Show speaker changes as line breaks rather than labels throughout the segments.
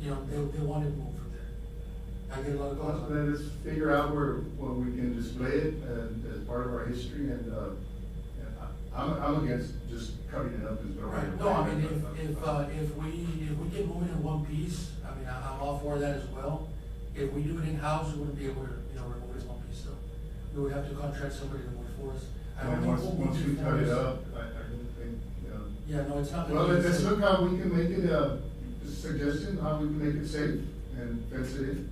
you know, they, they wanted more from there. I get a lot of calls.
Well, Then let's figure out where, where we can display it and as part of our history and, uh, and I- I'm, I'm against just cutting it up as the right.
Right, no, I mean, if, if, uh, if we, if we can move it in one piece, I mean, I- I'm all for that as well. If we do it in-house, we wouldn't be able to, you know, remove it in one piece, so we would have to contract somebody to work for us. I don't
And
think
once,
we'll
once
do
we cut it
for us.
up, I, I don't think, you know.
Yeah, no, it's not. gonna
Well,
be
let's
the
let's
same.
look how we can make it a suggestion, how we can make it safe and fence it in.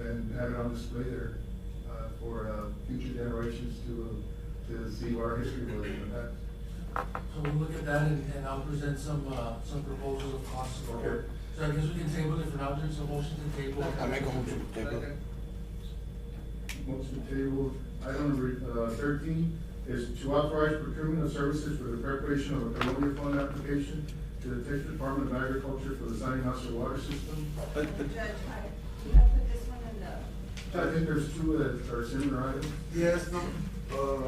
And have it on display there, uh, for, uh, future generations to, uh, to see what our history was and that.
So we'll look at that and, and I'll present some, uh, some proposals of costs for
Okay.
it. So I guess we can table it for now, there's a motion to table.
I make a motion to table.
Motion to table, item number uh, thirteen is to authorize procurement of services for the preparation of a colonial fund application to the Texas Department of Agriculture for the Sunny House Water System.
But,
Judge,
but,
I, you have put this one in the,
I think there's two that are similar items.
Yes, no,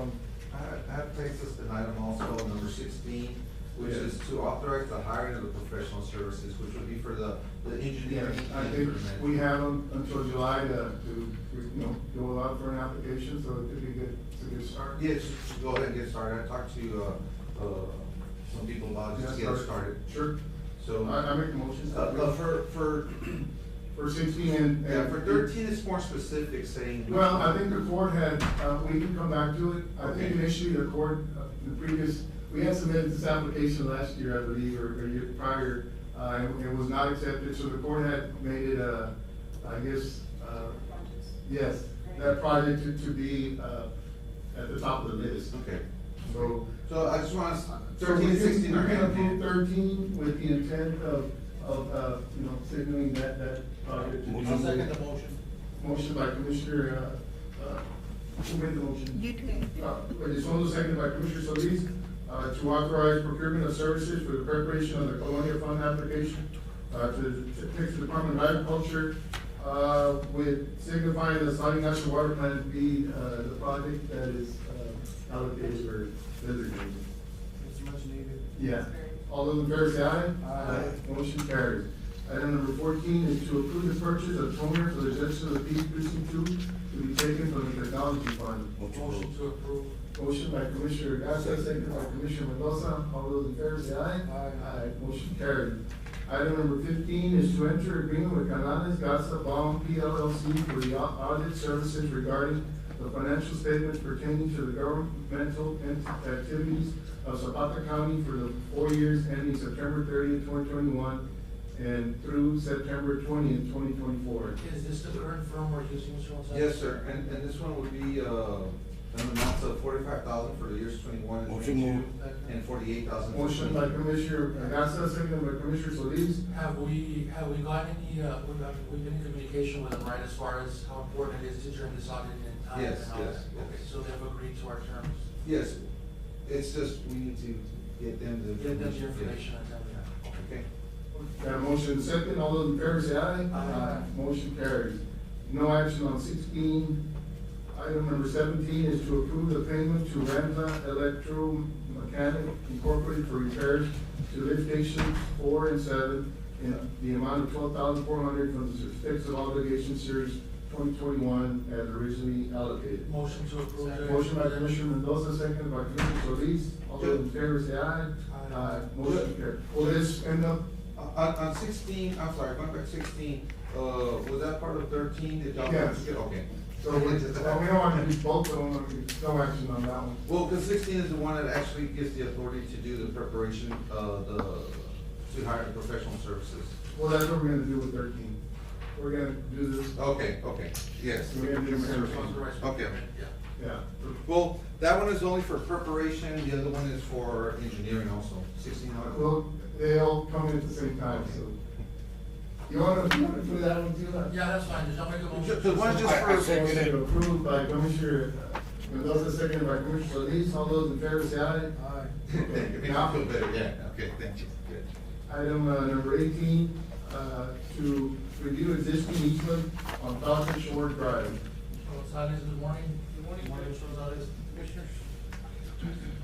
um, I, I have placed this in item also, number sixteen, which is to authorize the hiring of the professional services, which would be for the, the engineering.
I think we have them until July to, to, you know, go out for an application, so it could be good, it's a good start.
Yes, go ahead and get started, I talked to, uh, uh, some people about just getting started,
Sure, I,
so.
I make the motion.
Uh, uh, for, for,
For sixteen and.
yeah, for thirteen, it's more specific, saying. which
Well, I
one.
think the court had, uh, we can come back to it. I think
Okay.
initially the court, uh, the previous, we had submitted this application last year, I believe, or, or year prior. Uh, and it was not accepted, so the court had made it a, I guess, uh, yes, that project to, to be, uh, at the top of the list.
Okay,
So,
so I just want,
so we
thirteen,
can, we
sixteen are
can approve
gonna
thirteen with the intent of, of, uh, you know, signaling that, that project. to be-
I'll second the motion.
Motion by Commissioner, uh, uh, who made the motion?
you do.
Uh, Elizondo, seconded by Commissioner Solis, uh, to authorize procurement of services for the preparation of the colonial fund application, uh, to the Texas Department of Agriculture, uh, with signifying the Saudi National Water Plant be, uh, the project that is, uh, allocated or designated.
It's much needed.
Yeah. All those in favor say aye.
Aye.
Motion carries. Item number fourteen is to approve the purchase of toner for the Justice of the Peace Precinct Two to be taken from the technology fund.
Motion to approve.
Motion by Commissioner Garcia, second by Commissioner Mendoza, all those in favor say aye.
Aye.
uh,
motion carried. Item number fifteen is to enter agreement with Canales Garza Baum P LLC for the au- audit services regarding the financial statements pertaining to the governmental ent- activities of Zapata County for the four years ending September thirtieth, twenty twenty-one, and through September twentieth, twenty twenty-four.
Is this the current firm we're using, Mr. Gonzalez?
be. Yes, sir, and, and this one would be, uh, an amount of forty-five thousand for the years twenty-one and
Motion
twenty-two,
moved.
and forty-eight thousand.
Motion by Commissioner Garcia, second by Commissioner Solis,
Have we, have we got any, uh, we've, got- we've been in communication with them, right, as far as how important it is to turn this audit in time?
Yes,
and all
yes,
that?
yes.
Okay, So they've agreed to our terms,
Yes, it's just, we need to get them the.
give them the information and tell them that. Okay.
Okay.
Got a motion second, all those in favor say aye.
Aye.
Motion carries. No action on sixteen. Item number seventeen is to approve the payment to Ramza Electromechanic Incorporated for repairs to lift stations four and seven in the amount of twelve thousand four hundred from the certificates of obligation series twenty twenty-one as originally allocated.
uh, Motion to approve.
Motion by Commissioner Mendoza, second by Commissioner Solis. All those in favor say aye.
Aye.
Motion carries. Will this end up
On, on sixteen, I'm sorry, going back to sixteen, uh, was that part of thirteen? Did y'all?
Yes.
Okay.
So we, well, we don't want to do both of them, we- no action on that one.
Well, because sixteen is the one that actually gives the authority to do the preparation, uh, the, to hire the professional services.
Well, that's what we're gonna do with thirteen. We're gonna do this,
Okay, okay, yes.
We're gonna do them separately.
Okay.
Yeah.
yeah.
Well, that one is only for preparation, the other one is for engineering also, sixteen hundred.
Well, they all come in at the same time, so. You wanna, you wanna do that one too? huh?
Yeah, that's fine, just I'll make a motion.
The one just
I- I
for,
said-
Motion approved by Commissioner Mendoza, seconded by Commissioner Solis, all those in favor say aye.
Aye.
thank you, Make me feel better, yeah, okay, thank you, good.
Item uh, number eighteen, uh, to review existing easement on Thousand Shore Drive.
Mr. Gonzalez, good morning. Good morning. Mr. Gonzalez. Commissioners.